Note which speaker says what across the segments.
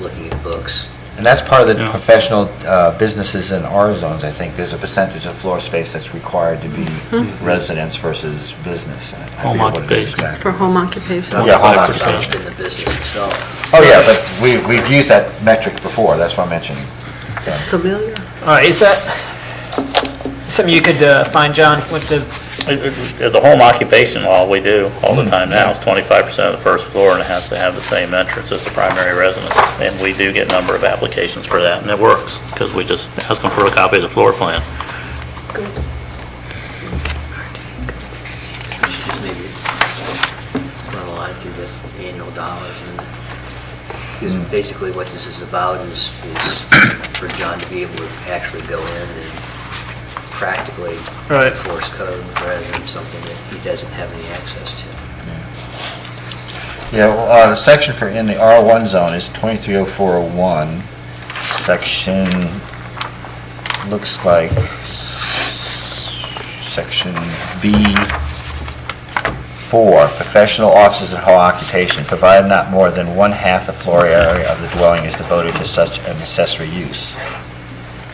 Speaker 1: looking at books.
Speaker 2: And that's part of the
Speaker 3: Yeah.
Speaker 2: professional uh, businesses in our zones, I think. There's a percentage of floor space that's required to be residence versus business. I forget
Speaker 3: Mm-hmm. Home
Speaker 2: what it is
Speaker 3: occupation.
Speaker 2: exactly.
Speaker 4: for home occupation.
Speaker 2: Yeah, home
Speaker 3: 25%.
Speaker 2: occupation.
Speaker 1: Just in the business itself.
Speaker 2: Oh, yeah, but we, we've used that metric before, that's why I'm mentioning. So,
Speaker 4: It's familiar.
Speaker 5: All right, is that something you could uh, find, John, with the,
Speaker 6: Uh, The home occupation law, we do all the time now, is 25% of the first floor, and it has to have the same entrance as the primary residence. And we do get a number of applications for that, and it works, because we just ask them for a copy of the floor plan.
Speaker 1: Just maybe run a line through the annual dollars and, because basically what this is about is, is for John to be able to actually go in and practically
Speaker 5: Right.
Speaker 1: enforce code rather than something that he doesn't have any access to.
Speaker 2: Yeah, well, uh, the section for, in the R1 zone is 230401, section, looks like, section B4, professional offices and home occupation, provided not more than one-half the floor area of the dwelling is devoted to such an accessory use,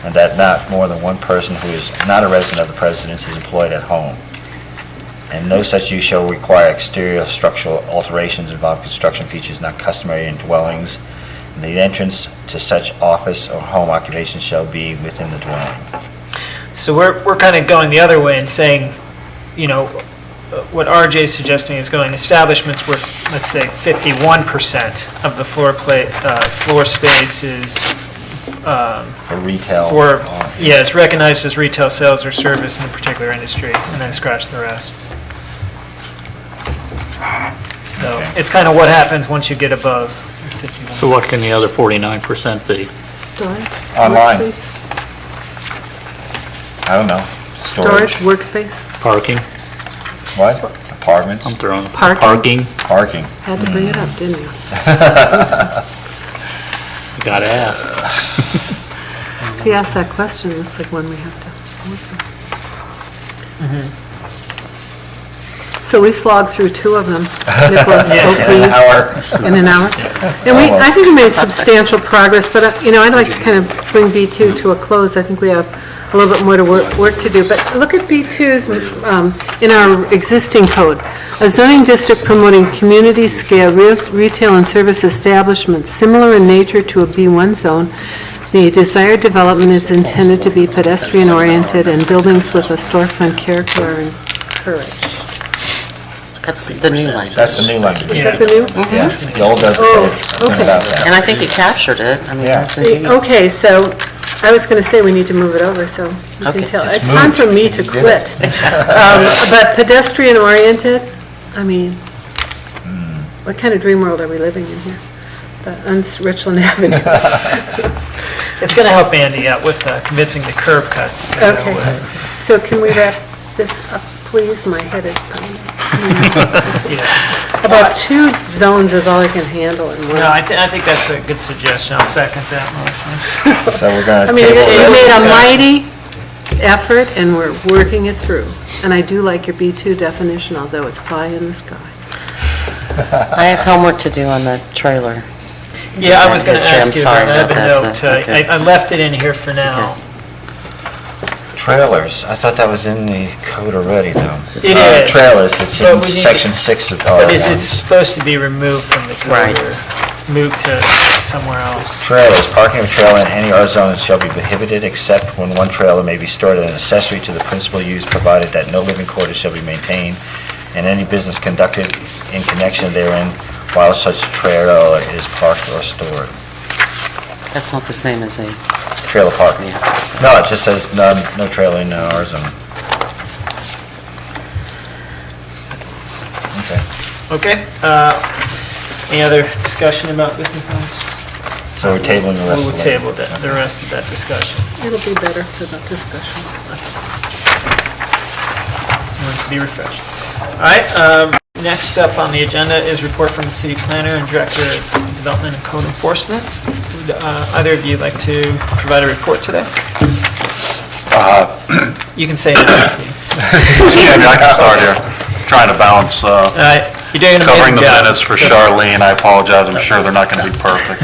Speaker 2: and that not more than one person who is not a resident of the residence is employed at home. And no such use shall require exterior structural alterations involving construction features not customary in dwellings. And the entrance to such office or home occupation shall be within the dwelling.
Speaker 5: so we're, we're kind of going the other way and saying, you know, uh, what RJ is suggesting is going establishments where, let's say, 51% of the floor plate, uh, floor space is, um,
Speaker 2: For retail.
Speaker 5: for,
Speaker 2: or-
Speaker 5: yeah, it's recognized as retail sales or service in a particular industry, and then scratch the rest. So
Speaker 2: Okay.
Speaker 5: it's kind of what happens once you get above 51.
Speaker 6: So what can the other 49% be?
Speaker 4: Storage?
Speaker 2: Online.
Speaker 4: workspace?
Speaker 2: I don't know.
Speaker 4: Storage, workspace,
Speaker 6: Parking?
Speaker 2: What? Apartments?
Speaker 6: I'm throwing,
Speaker 4: Parking.
Speaker 6: parking,
Speaker 2: Parking.
Speaker 4: had to bring it up, didn't
Speaker 6: you
Speaker 4: you?
Speaker 6: gotta ask.
Speaker 4: If you ask that question, it's like one we have to. work
Speaker 2: Mm-hmm.
Speaker 4: on. So we slogged through two of them, Nicholas
Speaker 2: An
Speaker 4: Oakley's
Speaker 2: hour.
Speaker 4: in an hour. And we, I think we made substantial progress, but, uh, you know, I'd like to kind of bring B2 to a close. I think we have a little bit more to work, work to do, but look at B2's, um, in our existing code. A zoning district promoting community-scale re- retail and service establishments similar in nature to a B1 zone, the desired development is intended to be pedestrian-oriented and buildings with a storefront character are encouraged.
Speaker 7: That's the new language.
Speaker 2: That's the new language.
Speaker 4: Is that the new?
Speaker 2: Yeah. Mm-hmm. The old doesn't say
Speaker 4: Oh,
Speaker 2: anything about that.
Speaker 7: And I think you captured it. I mean,
Speaker 2: Yeah.
Speaker 7: that's ingenious.
Speaker 4: Okay, so, I was going to say we need to move it over, so you
Speaker 7: Okay.
Speaker 4: can tell.
Speaker 2: It's
Speaker 4: It's time
Speaker 2: moved.
Speaker 4: for me to
Speaker 2: You did
Speaker 4: quit. Um, But pedestrian-oriented, I mean, what kind of dream world are we living in here? But on S- Richland Avenue.
Speaker 5: It's going to help Andy out with uh, convincing the curb cuts. to go
Speaker 4: Okay.
Speaker 5: away.
Speaker 4: So can we wrap this up, please? My head is pounding. About two zones is all I can handle in one.
Speaker 5: No, I thi- I think that's a good suggestion. I'll second that motion.
Speaker 2: So we're going
Speaker 4: I
Speaker 2: to
Speaker 4: mean, you
Speaker 2: table this.
Speaker 4: made a mighty effort, and we're working it through. And I do like your B2 definition, although it's pie in the sky.
Speaker 7: I have homework to do on the trailer.
Speaker 5: Yeah, I was going to
Speaker 7: Mr. Chair, I'm
Speaker 5: ask you
Speaker 7: sorry
Speaker 5: about another
Speaker 7: about that,
Speaker 5: note. uh,
Speaker 7: so-
Speaker 5: I
Speaker 7: okay.
Speaker 5: I left it in here for now.
Speaker 2: Trailers. I thought that was in the code already, though.
Speaker 5: It
Speaker 2: Uh,
Speaker 5: is.
Speaker 2: Trailers, it's
Speaker 5: But we
Speaker 2: in
Speaker 5: need to-
Speaker 2: section six of
Speaker 5: But it's it's
Speaker 2: R1.
Speaker 5: supposed to be removed from the code
Speaker 7: Right.
Speaker 5: or moved to somewhere else.
Speaker 2: Trailers, parking of trailer in any R zone shall be prohibited except when one trailer may be stored as an accessory to the principal use, provided that no living quarters shall be maintained, and any business conducted in connection therein while such trailer is parked or stored.
Speaker 7: That's not the same as a,
Speaker 2: Trailer parking.
Speaker 7: yeah.
Speaker 2: No, it just says no, no trailer in uh, R zone. Okay.
Speaker 5: Okay? uh, Any other discussion about business owners?
Speaker 2: So we're tabling the rest
Speaker 5: We'll
Speaker 2: of it.
Speaker 5: table that- the rest of that discussion.
Speaker 4: It'll be better for the discussion.
Speaker 5: Want to be refreshed. All right, um, next up on the agenda is report from the city planner and director of development and code enforcement. Would uh, either of you like to provide a report today?
Speaker 8: Uh,
Speaker 5: You can say that.
Speaker 8: Yeah, I mean, I can start here. Trying to balance uh,
Speaker 5: All right, you're doing an amazing job.
Speaker 8: covering the minutes for
Speaker 5: so-
Speaker 8: Charlene. I apologize, I'm sure they're not going to be perfect.